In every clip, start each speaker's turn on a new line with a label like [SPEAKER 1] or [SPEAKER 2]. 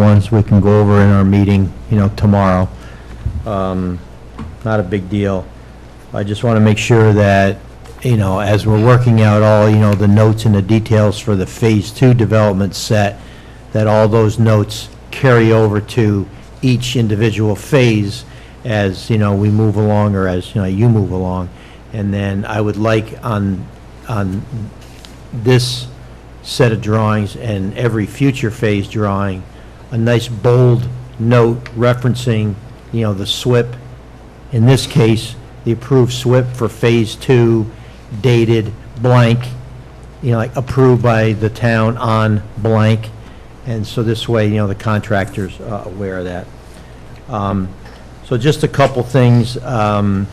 [SPEAKER 1] ones we can go over in our meeting, you know, tomorrow. Um, Not a big deal. I just want to make sure that, you know, as we're working out all, you know, the notes and the details for the Phase Two development set, that all those notes carry over to each individual phase as, you know, we move along, or as, you know, you move along. And then I would like on, on this set of drawings and every future phase drawing, a nice bold note referencing, you know, the SWIP, in this case, the approved SWIP for Phase Two dated blank, you know, like approved by the town on blank. And so this way, you know, the contractor's uh, aware of that. Um, So just a couple things. um,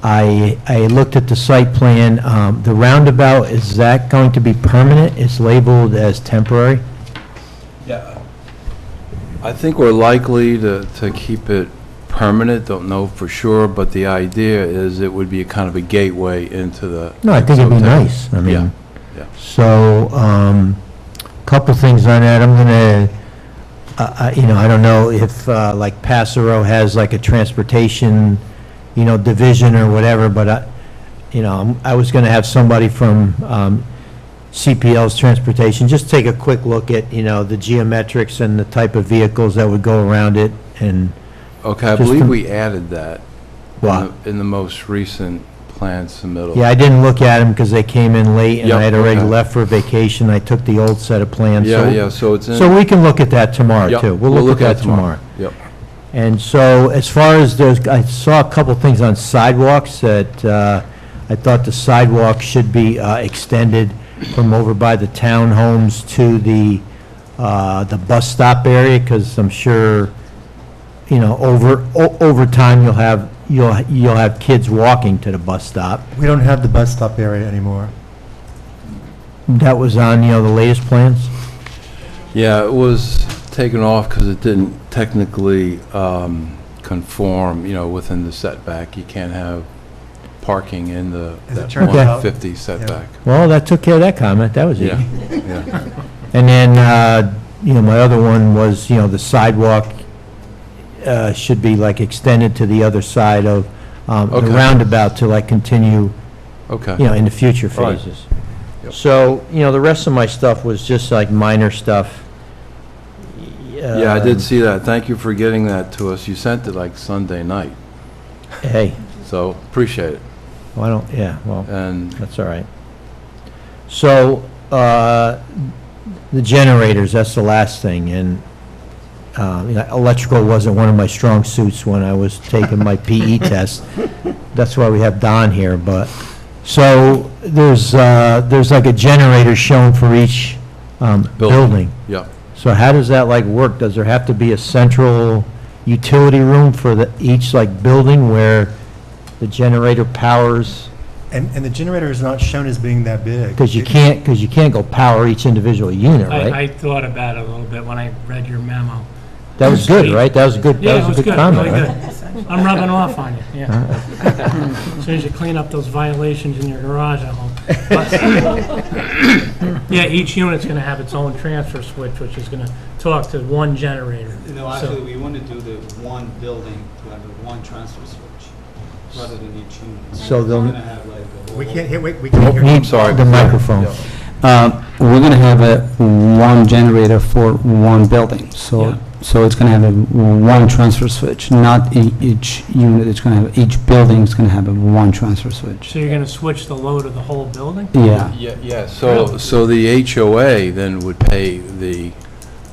[SPEAKER 1] I, I looked at the site plan, um, the roundabout, is that going to be permanent? It's labeled as temporary?
[SPEAKER 2] Yeah. I think we're likely to, to keep it permanent, don't know for sure, but the idea is it would be a kind of a gateway into the.
[SPEAKER 1] No, I think it'd be
[SPEAKER 2] Exotec.
[SPEAKER 1] nice, I
[SPEAKER 2] Yeah,
[SPEAKER 1] mean,
[SPEAKER 2] yeah.
[SPEAKER 1] so, um, couple things on that, I'm gonna, uh, you know, I don't know if, uh, like Passero has like a transportation, you know, division or whatever, but I, you know, I'm- I was gonna have somebody from, um, CPL's transportation, just take a quick look at, you know, the geometrics and the type of vehicles that would go around it and
[SPEAKER 2] Okay, I
[SPEAKER 1] Just
[SPEAKER 2] believe
[SPEAKER 1] to-
[SPEAKER 2] we added that. in
[SPEAKER 1] what.
[SPEAKER 2] the- In the most recent plan submittal.
[SPEAKER 1] Yeah, I didn't look at them because they came in late and I
[SPEAKER 2] Yep,
[SPEAKER 1] had already
[SPEAKER 2] okay.
[SPEAKER 1] left for vacation. I took the old set of plans.
[SPEAKER 2] Yeah,
[SPEAKER 1] so-
[SPEAKER 2] yeah, so it's in.
[SPEAKER 1] So we can look at that tomorrow
[SPEAKER 2] Yep,
[SPEAKER 1] too. We'll look at that tomorrow.
[SPEAKER 2] Yep.
[SPEAKER 1] And so as far as those, I saw a couple things on sidewalks that uh, I thought the sidewalk should be uh, extended from over by the townhomes to the, uh, the bus stop area because I'm sure, you know, over, o- over time you'll have, you'll, you'll have kids walking to the bus stop.
[SPEAKER 3] We don't have the bus stop area anymore.
[SPEAKER 1] That was on, you know, the latest plans?
[SPEAKER 2] Yeah, it was taken off because it didn't technically um, conform, you know, within the setback. You can't have parking in the
[SPEAKER 3] As it
[SPEAKER 2] that
[SPEAKER 3] turns
[SPEAKER 1] out-
[SPEAKER 2] 150 setback.
[SPEAKER 1] Well, that took care of that comment, that was
[SPEAKER 2] Yeah,
[SPEAKER 1] easy.
[SPEAKER 2] yeah.
[SPEAKER 1] And then, uh, you know, my other one was, you know, the sidewalk uh, should be like extended to the other side of um, the
[SPEAKER 2] Okay.
[SPEAKER 1] roundabout to like continue, you
[SPEAKER 2] Okay.
[SPEAKER 1] know, in the future
[SPEAKER 2] All right.
[SPEAKER 1] phases.
[SPEAKER 2] Yep.
[SPEAKER 1] So, you know, the rest of my stuff was just like minor stuff. Um,
[SPEAKER 2] Yeah, I did see that. Thank you for getting that to us. You sent it like Sunday night,
[SPEAKER 1] Hey,
[SPEAKER 2] so appreciate it.
[SPEAKER 1] why don't, yeah, well.
[SPEAKER 2] And,
[SPEAKER 1] That's all right. So, uh, the generators, that's the last thing, and, uh, you know, electrical wasn't one of my strong suits when I was taking my PE test. That's why we have Don here, but, so, there's, uh, there's like a generator shown for each, um,
[SPEAKER 2] Building.
[SPEAKER 1] building.
[SPEAKER 2] yeah,
[SPEAKER 1] So how does that like work? Does there have to be a central utility room for the, each like building where the generator powers?
[SPEAKER 3] And, and the generator is not shown as being that big.
[SPEAKER 1] Because you
[SPEAKER 3] It-
[SPEAKER 1] can't, because you can't go power each individual unit,
[SPEAKER 4] I,
[SPEAKER 1] right?
[SPEAKER 4] I thought about it a little bit when I read your memo.
[SPEAKER 1] That was good, right? That was a good,
[SPEAKER 4] Yeah,
[SPEAKER 1] that was
[SPEAKER 4] it was
[SPEAKER 1] a good
[SPEAKER 4] good,
[SPEAKER 1] comment,
[SPEAKER 4] really
[SPEAKER 1] right?
[SPEAKER 4] good. I'm rubbing off on you, yeah. As Soon as you clean up those violations in your garage at home. But- Yeah, each unit's gonna have its own transfer switch, which is gonna talk to one generator.
[SPEAKER 5] No, actually, we want to do the one building, to have the one transfer switch, rather than each unit.
[SPEAKER 1] So
[SPEAKER 5] We're
[SPEAKER 1] they'll-
[SPEAKER 5] gonna have like a
[SPEAKER 3] We
[SPEAKER 5] whole-
[SPEAKER 3] can't hear, we we can't hear.
[SPEAKER 2] Oh, I'm sorry.
[SPEAKER 1] The microphone.
[SPEAKER 2] Yeah.
[SPEAKER 6] Uh, We're going to have a one generator for one building,
[SPEAKER 4] Yeah.
[SPEAKER 6] so, so it's going to have a one transfer switch, not e- each unit, it's going to have, each building is going to have a one transfer switch.
[SPEAKER 4] So you're gonna switch the load of the whole building?
[SPEAKER 6] Yeah,
[SPEAKER 2] Yeah, yeah, so, so the HOA then would pay the,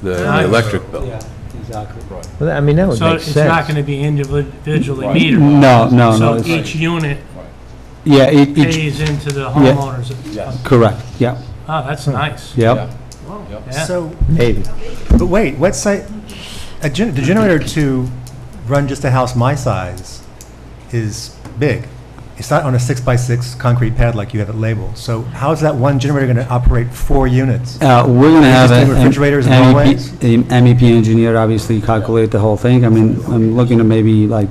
[SPEAKER 2] the
[SPEAKER 4] Nice.
[SPEAKER 2] electric bill.
[SPEAKER 5] Yeah, exactly.
[SPEAKER 2] Right.
[SPEAKER 1] Well, I mean, that would
[SPEAKER 4] So
[SPEAKER 1] make
[SPEAKER 4] it's not
[SPEAKER 1] sense.
[SPEAKER 4] gonna be individually
[SPEAKER 2] Right.
[SPEAKER 4] metered.
[SPEAKER 6] no, no, no,
[SPEAKER 4] So
[SPEAKER 6] it's-
[SPEAKER 4] each unit
[SPEAKER 6] yeah, e- each,
[SPEAKER 4] pays into the homeowners.
[SPEAKER 2] Yes.
[SPEAKER 6] correct, yeah,
[SPEAKER 4] Oh,
[SPEAKER 1] Hmm.
[SPEAKER 4] that's nice.
[SPEAKER 6] yeah.
[SPEAKER 4] Yeah.
[SPEAKER 3] So,
[SPEAKER 1] Maybe.
[SPEAKER 3] but wait, what site, a gen, the generator to run just a house my size is big. It's not on a six-by-six concrete pad like you have it labeled. So how is that one generator going to operate four units?
[SPEAKER 6] Uh, We're going to have a... E
[SPEAKER 3] Existing refrigerators in
[SPEAKER 6] MEP
[SPEAKER 3] hallways?
[SPEAKER 6] a MEP E engineer obviously calculate the whole thing, I mean, I'm looking at maybe like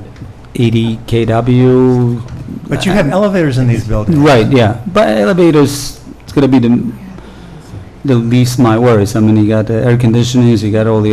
[SPEAKER 6] 80 KW,
[SPEAKER 3] But you have elevators in these buildings.
[SPEAKER 6] Right, yeah, but elevators, it's gonna be the, the least my worries, I mean, you got the air conditionings, you got all the